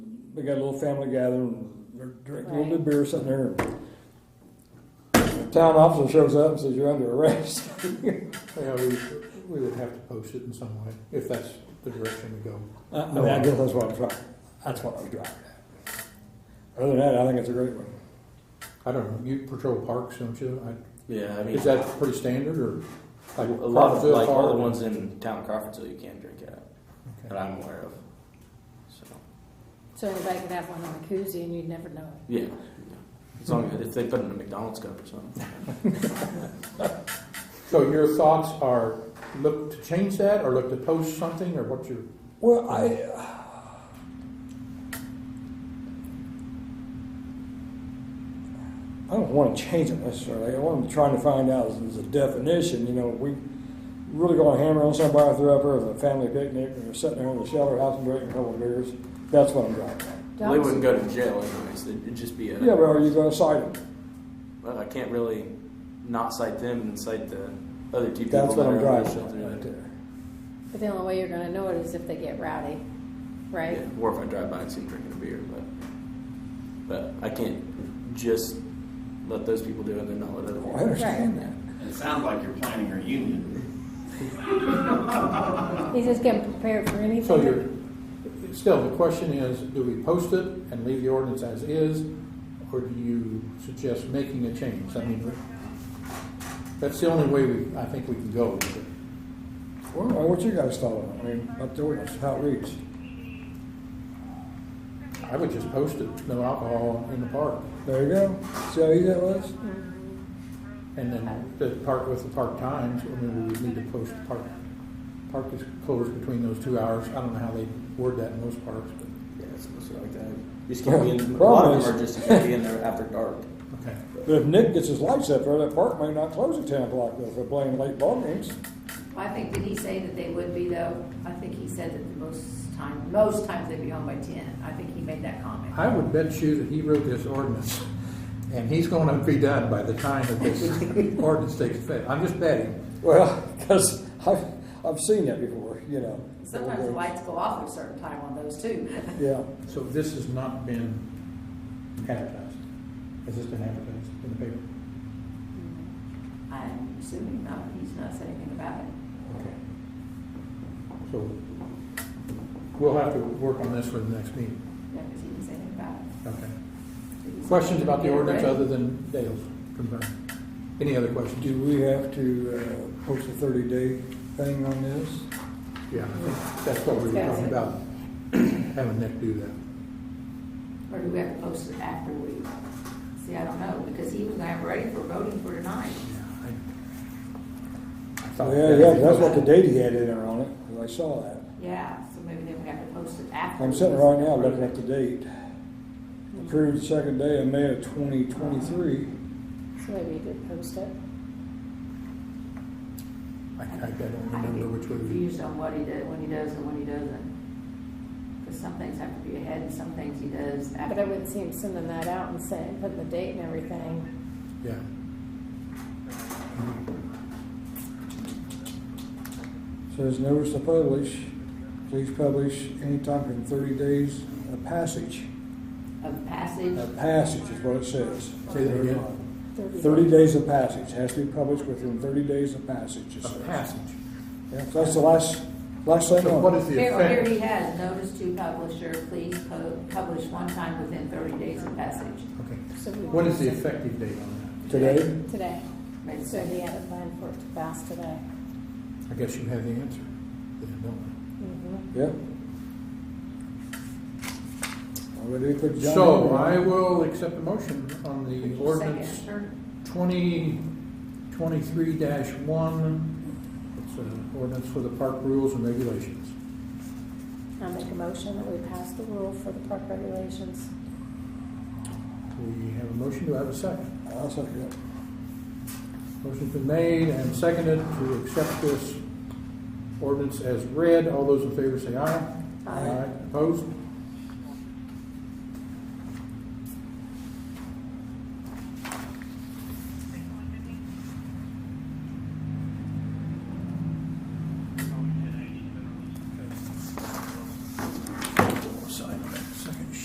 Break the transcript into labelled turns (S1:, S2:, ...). S1: we got a little family gathering, and drink a little bit of beer, sitting there. and the Town officer shows up and says, you're under arrest.
S2: Yeah, we, we would have to post it in some way, if that's the direction we go.
S1: I, I mean, I guess that's what I'm trying, that's what I'm driving at. Other than that, I think it's a great one.
S2: I don't know, you patrol parks, don't you? I-
S3: Yeah, I mean,
S2: Is that pretty standard, or?
S3: a
S2: like
S3: lot of
S2: Crawfordville
S3: like all
S2: Park?
S3: the ones in town of Crawfordsville you can drink at that
S2: Okay.
S3: I'm aware of. So
S4: So everybody could have one on a koozie and you'd never know it.
S3: yeah, as long as if they put it in a McDonald's cup or something.
S2: So your thoughts are, look to change that, or look to post something, or what's your,
S1: Well, I, I don't want to change it necessarily. What I'm trying to find out is, is a definition. You know, we really going to hammer on somebody through up there with a family picnic and they're sitting there in the shelter house and drinking a couple of beers. That's what I'm driving at.
S3: Well, they wouldn't go to jail anyways. It'd just be a
S1: Yeah, but are you going to cite them?
S3: Well, I can't really not cite them and cite the other two people.
S1: That's what
S3: that
S1: I'm
S3: are under
S1: driving
S3: shelter.
S1: at right there.
S4: But the only way you're gonna know it is if they get rowdy, right?
S3: Yeah, or if I drive by and see them drinking a beer, but but I can't just let those people do it and not let other
S1: Well, I
S3: people.
S1: understand that.
S5: It sounds like you're planning a reunion.
S4: He's just getting prepared for anything.
S2: so your, still, the question is, do we post it and leave the ordinance as is, or do you suggest making a change? I mean, that's the only way we, I think we can go with it.
S1: Well, what you guys thought of it? I mean, up to ordinance, how it reads.
S2: I would just post it, no alcohol in the park,
S1: There you go. See how easy that was?
S2: and then the park with the park times, I mean, we would need to post the park. Park is closed between those two hours, I don't know how they word that in most parks, but,
S3: Yeah, it's mostly like that. You just can't be in. A lot
S1: Problem
S3: of them are
S1: is-
S3: just you can't be in there after dark.
S2: okay.
S1: But if Nick gets his lights up there, that park may not close at ten o'clock though, if they're playing late ball games.
S6: I think, did he say that they would be though? I think he said that the most time, most times they'd be home by ten. I think he made that comment.
S2: I would bet you that he wrote this ordinance, and he's gonna be done by the time that this ordinance takes effect, I'm just betting.
S1: Well, because I've, I've seen that before, you know.
S6: Sometimes the lights go off at a certain time on those too.
S1: Yeah,
S2: So this has not been advertised, has this been advertised in the paper?
S6: I'm assuming not, he's not said anything about it.
S2: Okay. So, we'll have to work on this for the next meeting.
S6: No, because he didn't say anything about it.
S2: Okay.
S6: He said
S2: Questions about the
S6: they're
S2: ordinance
S6: ready.
S2: other than Dale's concern? Any other questions?
S1: do we have to, uh, post a thirty day thing on this?
S2: Yeah, I think that's what we were talking about, having Nick do that.
S6: Or do we have to post it after we, see, I don't know, because he was gonna have it ready for voting for tonight.
S2: I- I thought
S1: Yeah,
S2: that-
S1: yeah, that's what the date he had in there on it, 'cause I saw that.
S6: Yeah, so maybe then we have to post it after.
S1: I'm sitting right now looking at the date. Approved second day of May of twenty twenty-three.
S4: So maybe you could post it.
S2: I, I don't remember which way we,
S6: Confused on what he did, when he does and when he doesn't. Because some things have to be ahead and some things he does after.
S4: But I wouldn't see him sending that out and saying, putting the date and everything.
S2: yeah.
S1: Says notice to publish, please publish anytime in thirty days of passage.
S6: Of passage,
S1: A passage is what it says.
S2: Say that again.
S1: Thirty days of passage, has to be published within thirty days of passage. it
S2: A
S1: says.
S2: passage.
S1: Yeah, so that's the last, last thing
S2: So what
S1: on it.
S2: is the
S6: here, here he
S2: effect?
S6: has, notice to publisher, please po- publish one time within thirty days of passage.
S2: Okay.
S4: So we-
S2: What is the effective date on
S1: Today,
S4: Today.
S6: Makes
S4: So he
S6: sense.
S4: had a plan for it to pass today.
S2: that? I guess you have the answer, then, don't
S4: Mhm.
S1: yeah. Already put
S2: we?
S1: John
S2: So
S1: Henry on.
S2: I will accept the motion on the ordinance
S6: Second, third.
S2: twenty twenty-three dash one. It's an ordinance for the park rules and regulations.
S4: I make a motion that we pass the rule for the park regulations.
S2: We have a motion, do I have a second?
S1: I'll second it.
S2: Motion's been made and seconded to accept this ordinance as read. All those in favor say aye.
S6: Aye.
S2: Opposed?